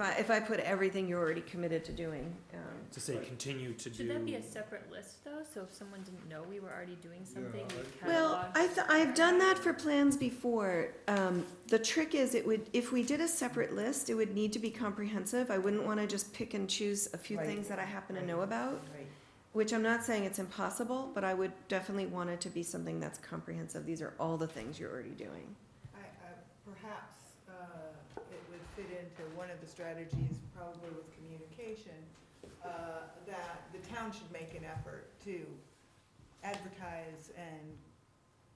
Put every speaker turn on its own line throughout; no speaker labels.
I, if I put everything you're already committed to doing, um,
to say continue to do.
Should that be a separate list though, so if someone didn't know we were already doing something,
Yeah,
we
I-
Well,
catalog?
I th- I've done that for plans before. Um, the trick is it would, if we did a separate list, it would need to be comprehensive. I wouldn't wanna just pick and choose a few
Right.
things that I happen to
Right.
know about,
Right.
which I'm not saying it's impossible, but I would definitely want it to be something that's comprehensive. These are all the things you're already doing.
I, I, perhaps, uh, it would fit into one of the strategies, probably with communication, uh, that the town should make an effort to advertise and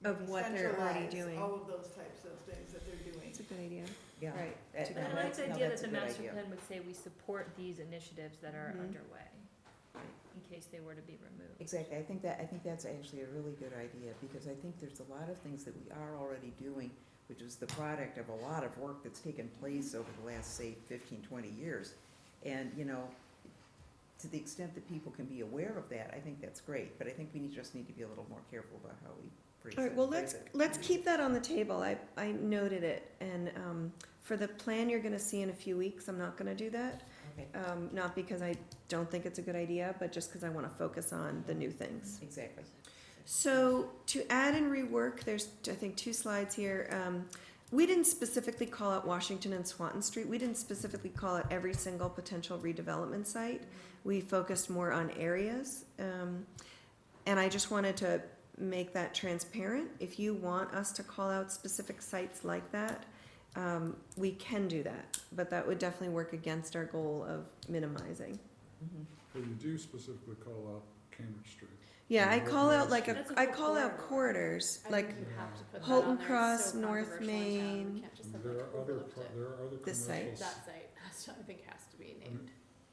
Of
maybe
what they're already
centralize
doing.
Oh.
All of those types of things that they're doing.
That's a good idea.
Yeah.
Right.
That-
To-
I
No,
like
that's-
the
no,
idea that
that's a
the
good
master
idea.
plan would say we support these initiatives that are
Mhm.
underway,
Right.
in case they were to be removed.
Exactly, I think that, I think that's actually a really good idea, because I think there's a lot of things that we are already doing, which is the product of a lot of work that's taken place over the last, say, 15, 20 years. And, you know, to the extent that people can be aware of that, I think that's great, but I think we need- just need to be a little more careful about how we phrase it.
All right, well,
phrase
let's,
it.
let's keep that on the table. I, I noted it. And, um, for the plan you're gonna see in a few weeks, I'm not gonna do that.
Okay,
Um, not because I don't think it's a good idea, but just because I want to focus on the new things.
exactly.
So to add and rework, there's, I think, two slides here. Um, we didn't specifically call out Washington and Swanton Street. We didn't specifically call out every single potential redevelopment site. We focused more on areas. Um, and I just wanted to make that transparent. If you want us to call out specific sites like that, um, we can do that, but that would definitely work against our goal of minimizing.
Mhm.
But you do specifically call out Cambridge Street.
Yeah, I
And
call out like
recognize
a,
That's a
I
whole
call out
corridor.
corridors,
I
like
think you have to put that
Holton
on there. It's
Cross,
so
North
controversial in town.
Main.
We can't just have
There
like
are other,
overlooked
pro-
it.
there are other
This site.
commercial,
That site, has to- I think has to be named.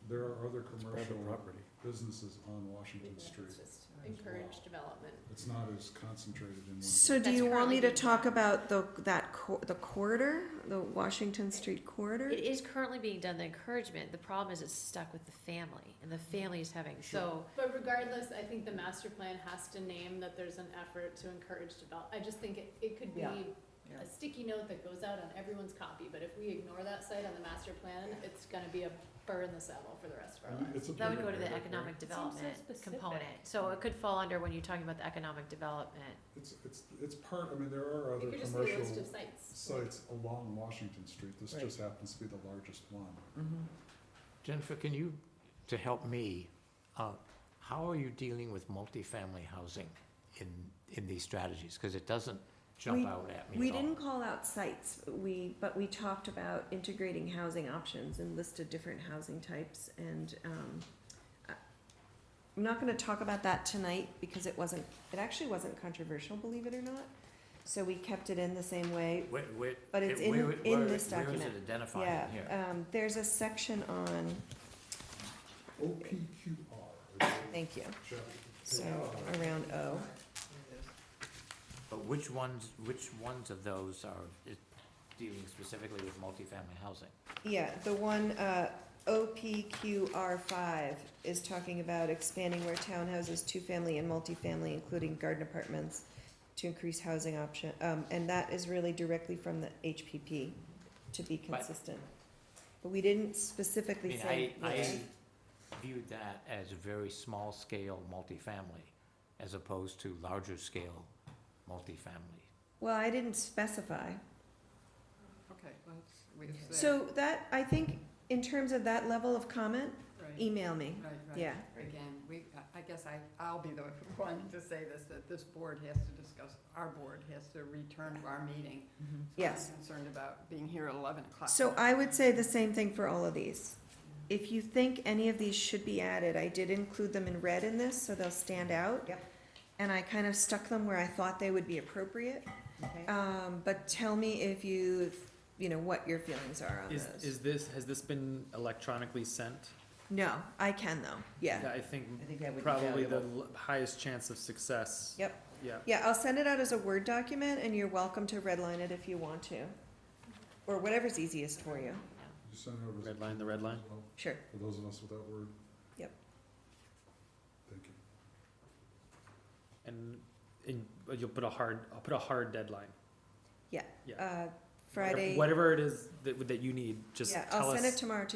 there are other
It's
commercial
private property.
businesses on
Maybe
Washington
that's
Street.
just
As
Encourage
well.
development.
It's not as concentrated in one.
So do
That's
you want me to
currently-
talk about the, that cor- the corridor, the Washington Street corridor?
It is currently being done, the encouragement, the problem is it's stuck with the family, and the family is having, so,
But regardless, I think the master plan has to name that there's an effort to encourage develop. I just think it, it could be
Yeah.
a
Yeah.
sticky note that goes out on everyone's copy, but if we ignore that site on the master plan, it's gonna be a burr in the saddle for the rest of our lives.
It's a
that would go to
private
the
property.
economic
It seems so
development
specific.
component. So it could fall under when you're talking about the economic development.
It's, it's, it's part, I mean, there
It
are other
could just be a
commercial
list of sites.
sites along Washington Street. This
Right.
just happens to be the largest one.
Mhm.
Jennifer, can you, to help me, uh, how are you dealing with multifamily housing in, in these strategies? Because it doesn't
We-
jump out at me
We
at all.
didn't call out sites, we, but we talked about integrating housing options and listed different housing types and, um, I- I'm not gonna talk about that tonight because it wasn't, it actually wasn't controversial, believe it or not. So we kept it in the same way.
Where- where-
But it's in-
where-
in
where-
this
Where is
document.
it identified
Yeah,
in here?
um, there's a section on,
OPQR.
thank you,
Chapter-
so around O.
But which ones, which ones of those are is dealing specifically with multifamily housing?
Yeah, the one, uh, OPQR five is talking about expanding where townhouses, two-family and multifamily, including garden apartments, to increase housing option, um, and that is really directly from the HPP, to be
But-
consistent. But we didn't
I
specifically
mean,
say.
I, I
which.
viewed that as a very small scale multifamily as opposed to larger scale multifamily.
Well, I didn't specify.
Okay, let's,
So that, I think, in terms of that level of comment, email me,
Right, right.
yeah.
Again, we, I guess I, I'll be the one to say this, that this board has to discuss, our board has to return to our meeting.
Mhm.
So I'm
Yes.
Concerned about being here at eleven o'clock.
So I would say the same thing for all of these. If you think any of these should be added, I did include them in red in this, so they'll stand out.
Yep.
And I kind of stuck them where I thought they would be appropriate.
Okay.
Um, but tell me if you, you know, what your feelings are on
Is,
those.
is this, has this been electronically sent?
No, I can though, yeah.
I think
I think that would be
probably the
valuable.
l- highest chance of success.
Yep.
Yeah.
Yeah, I'll send it out as a Word document and you're welcome to redline it if you want to. Or whatever's easiest for you,
You sent it over as a
Red line, the red line?
well,
sure.
For those of us without word.
Yep.
Thank you.
And, and but you'll put a hard, I'll put a hard deadline.
Uh, Friday,
Whatever it is that, that you need, just
yeah,
tell us.
I'll send it tomorrow to